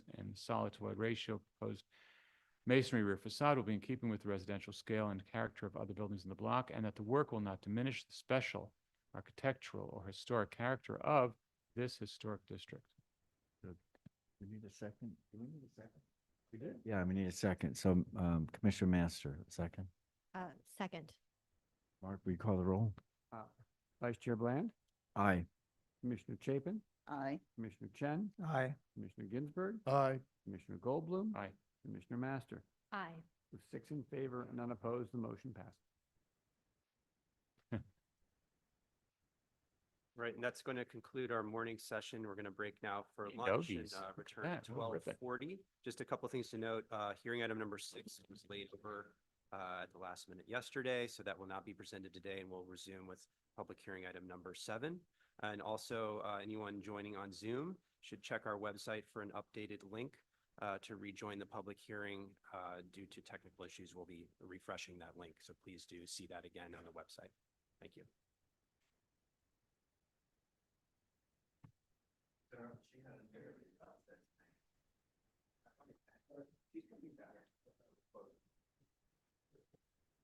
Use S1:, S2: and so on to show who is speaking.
S1: solid to wood ratio proposed masonry rear facade will be in keeping with the residential scale and character of other buildings in the block, and that the work will not diminish the special architectural or historic character of this historic district.
S2: We need a second. Do we need a second? We did? Yeah, we need a second. So um, Commissioner Master, second.
S3: Uh, second.
S2: Mark, will you call the roll?
S4: Aye. Vice Chair Bland,
S2: Aye.
S4: Commissioner Chapin,
S5: Aye.
S4: Commissioner Chen,
S6: Aye.
S4: Commissioner Ginsburg,
S6: Aye.
S4: Commissioner Goldblum.
S1: Aye.
S4: Commissioner Master.
S3: Aye.
S4: With six in favor and none opposed, the motion passes.
S7: Right, and that's going to conclude our morning session. We're going to break now for
S1: Hey,
S7: lunch and
S1: doggies.
S7: uh,
S1: Look at
S7: return at
S1: that. Oh,
S7: twelve
S1: Ribbit.
S7: forty. Just a couple things to note, uh, hearing item number six was laid over uh, at the last minute yesterday, so that will not be presented today, and we'll resume with public hearing item number seven. And also, uh, anyone joining on Zoom should check our website for an updated link uh, to rejoin the public hearing. Uh, Due to technical issues, we'll be refreshing that link, so please do see that again on the website. Thank you.